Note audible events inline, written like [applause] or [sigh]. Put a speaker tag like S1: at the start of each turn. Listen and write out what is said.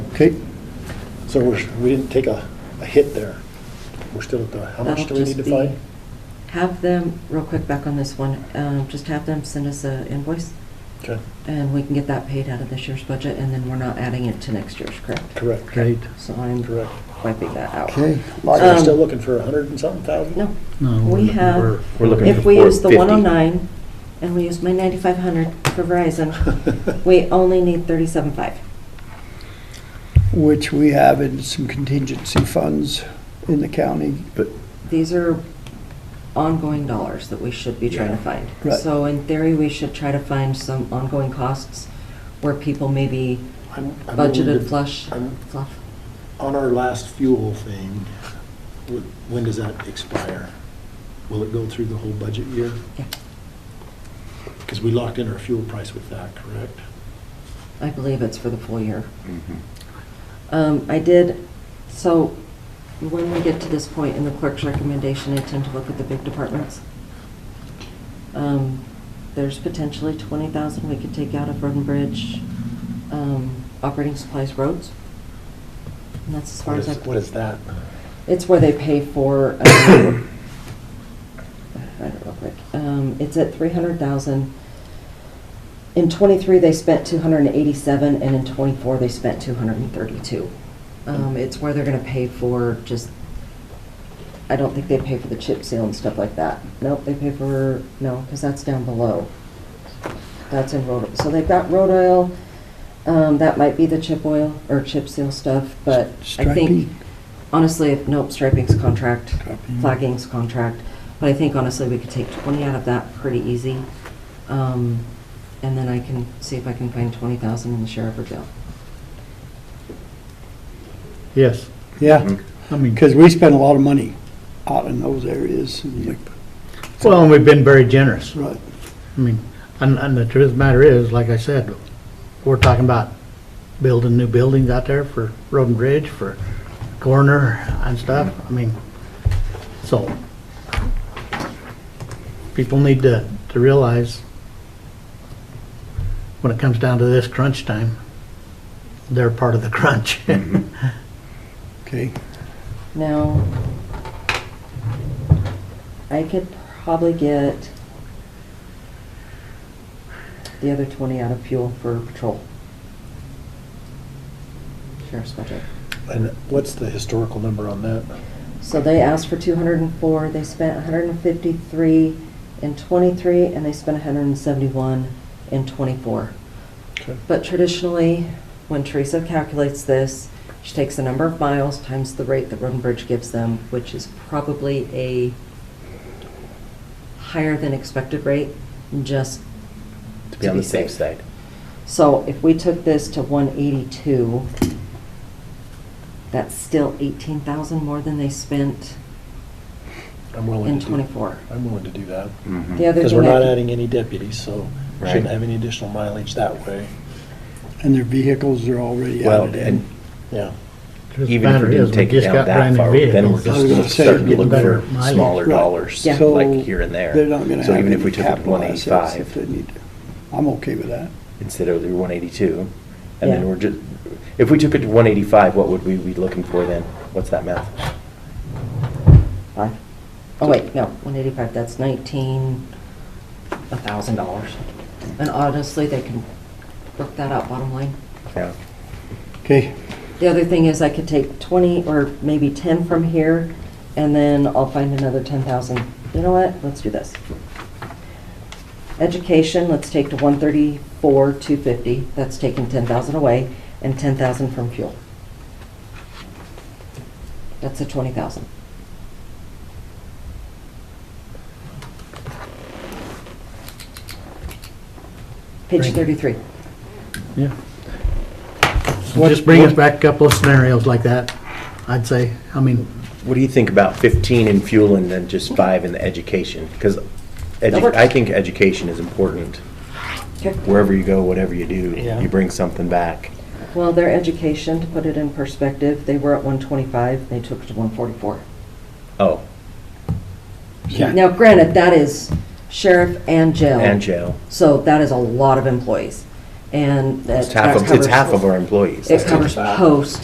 S1: Okay, so we're, we didn't take a, a hit there. We're still at the, how much do
S2: That'll
S1: we need to
S2: just be-
S1: find?
S2: Have them, real quick, back on this one, um, just have them send us an invoice,
S1: Okay,
S2: and we can get that paid out of this year's budget, and then we're not adding it to next year's, correct?
S1: correct.
S3: Great.
S2: So I'm
S1: Correct.
S2: wiping that out.
S3: Okay.
S1: Like, we're
S2: Um,
S1: still looking for a hundred and something thousand?
S2: No,
S3: No,
S2: we
S3: we're-
S2: have,
S4: We're looking
S2: if
S4: for
S2: we use the
S4: 450.
S2: 109, and we use my 9,500 for
S1: [laughs]
S2: Verizon, we only need 37.5.
S3: Which we have in some contingency funds in the county. But.
S2: These are ongoing dollars that we should be trying to find.
S3: Right.
S2: So in theory, we should try to find some ongoing costs where people maybe
S1: I'm- I'm a little
S2: budgeted
S1: bit-
S2: flush,
S1: I'm-
S2: fluff.
S1: On our last fuel thing, wh- when does that expire? Will it go through the whole budget year?
S2: Yeah,
S1: Because we locked in our fuel price with that, correct?
S2: I believe it's for the full year. Um, I did, so when we get to this point in the clerk's recommendation, I tend to look at the big departments. Um, There's potentially twenty thousand we could take out of Roden Bridge, um, operating supplies roads. And that's as far
S1: What
S2: as I.
S1: is, what is that?
S2: It's where they pay for, um, [coughs] I don't know, quick, um, it's at three hundred thousand. In twenty-three, they spent two hundred and eighty-seven, and in twenty-four, they spent two hundred and thirty-two. Um, it's where they're gonna pay for just, I don't think they pay for the chip seal and stuff like that. Nope, they pay for, no, because that's down below. That's in road, so they've got road oil, um, that might be the chip oil or chip seal stuff, but I think
S3: Striping.
S2: honestly, if, nope, striping's contract,
S3: Striping.
S2: flagging's contract, but I think honestly, we could take twenty out of that pretty easy. Um, and then I can see if I can find twenty thousand in the sheriff or jail.
S3: Yes. Yeah,
S4: Mhm.
S3: I mean, because we spend a lot of money out in those areas. and we-
S5: Well, and we've been very generous.
S3: Right,
S5: I mean, and, and the truth of the matter is, like I said, we're talking about building new buildings out there for Road and Bridge, for Corner and stuff. I mean, so people need to, to realize when it comes down to this crunch time, they're part of
S4: [laughs]
S5: the crunch.
S3: okay.
S2: Now, I could probably get the other twenty out of fuel for patrol. Sheriff's budget.
S1: And what's the historical number on that?
S2: So they asked for two hundred and four, they spent hundred and fifty-three in twenty-three, and they spent hundred and seventy-one in twenty-four.
S1: Okay.
S2: But traditionally, when Teresa calculates this, she takes the number of miles times the rate that Roden Bridge gives them, which is probably a higher than expected rate, just
S4: To be on the safe
S2: safe.
S4: side.
S2: So if we took this to one eighty-two, that's still eighteen thousand more than they spent
S1: I'm willing
S2: in
S1: to do,
S2: twenty-four.
S1: I'm willing to do that.
S2: The other
S1: Because we're
S2: thing I
S1: not
S2: can-
S1: adding any deputies, so shouldn't
S4: Hmm. Right.
S1: have any additional mileage that way.
S3: And their vehicles are already
S4: Well,
S3: added
S4: and
S3: in.
S1: Yeah.
S5: Truth of the
S4: even if
S5: matter
S4: we
S5: is,
S4: didn't take it
S5: just
S4: down
S5: got
S4: that
S5: brand new
S4: far, then we're
S5: vehicles.
S3: I was gonna
S4: just
S3: say,
S4: starting to
S3: you're
S4: look
S3: getting
S4: for
S5: better mileage.
S4: smaller
S3: Right.
S4: dollars,
S2: Yeah.
S3: So
S4: like here and there.
S3: They're not going to
S4: So
S3: have
S4: even if
S3: any
S4: we took it to
S3: capital assets if
S4: 185
S3: they need. to. I'm okay with that.
S4: instead of the 182, and
S2: Yeah.
S4: then we're just, if we took it to 185, what would we be looking for then? What's that math?
S2: Five. Oh, wait, no, one eighty-five, that's nineteen, a thousand dollars. And honestly, they can work that out bottom line.
S4: Yeah.
S3: Okay,
S2: The other thing is I could take twenty or maybe ten from here, and then I'll find another ten thousand. You know what? Let's do this. Education, let's take to one thirty-four, two fifty. That's taking ten thousand away, and ten thousand from fuel. That's a twenty thousand. Page
S5: Right.
S2: thirty-three.
S5: Yeah. Just bring us back a couple of scenarios like that, I'd say. I mean,
S4: What do you think about 15 in fuel and then just five in the education? Because
S2: That works.
S4: I think education is important.
S2: Okay.
S4: Wherever you go, whatever you do,
S1: Yeah.
S4: you bring something back.
S2: Well, their education, to put it in perspective, they were at 125, they took it to 144.
S4: Oh,
S2: Now, granted, that is sheriff and jail.
S4: and jail.
S2: So that is a lot of employees. and. that
S4: It's half,
S2: that
S4: of- it's
S2: covers-
S4: half of our employees.
S2: It covers post